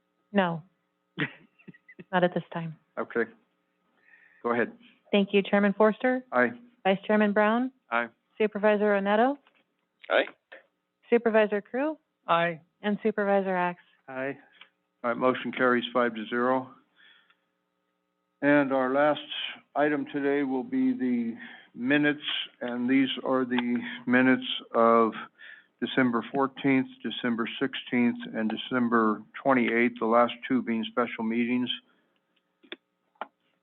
No. Not at this time. Okay. Go ahead. Thank you, Chairman Forster, Aye. Vice Chairman Brown, Aye. Supervisor Onetto, Aye. Supervisor Crew, Aye. and Supervisor Axe. Aye. All right, motion carries five to zero. And our last item today will be the minutes, and these are the minutes of December fourteenth, December sixteenth, and December twenty-eighth, the last two being special meetings.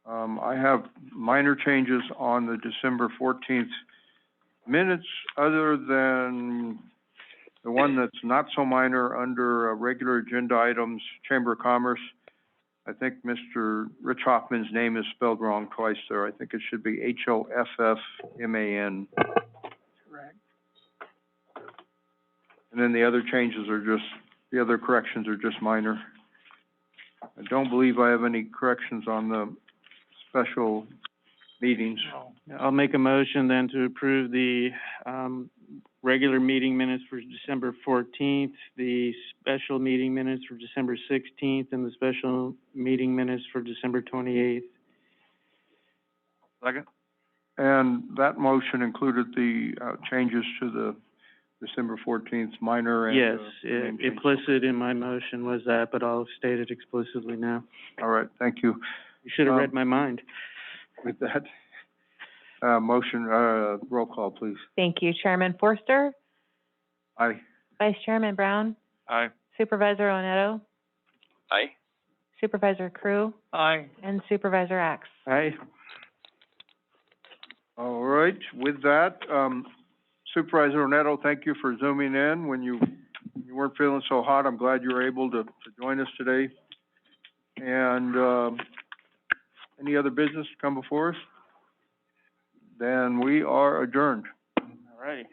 Um, I have minor changes on the December fourteenth minutes, other than the one that's not so minor under uh, regular agenda items, Chamber of Commerce. I think Mr. Rich Hoffman's name is spelled wrong twice there. I think it should be H-O-F-F-M-A-N. Correct. And then the other changes are just, the other corrections are just minor. I don't believe I have any corrections on the special meetings. I'll make a motion then to approve the, um, regular meeting minutes for December fourteenth, the special meeting minutes for December sixteenth, and the special meeting minutes for December twenty-eighth. Second. And that motion included the uh, changes to the December fourteenth minor and. Yes, uh, i- name change. implicit in my motion was that, but I'll state it explicitly now. All right, thank you. You should have Um, read my mind. With that, uh, motion, uh, roll call, please. Thank you, Chairman Forster, Aye. Vice Chairman Brown, Aye. Supervisor Onetto, Aye. Supervisor Crew, Aye. and Supervisor Axe. Aye. All right, with that, um, Supervisor Neto, thank you for zooming in when you, you weren't feeling so hot. I'm glad you were able to, to join us today. And, um, any other business to come before us? Then we are adjourned. All right.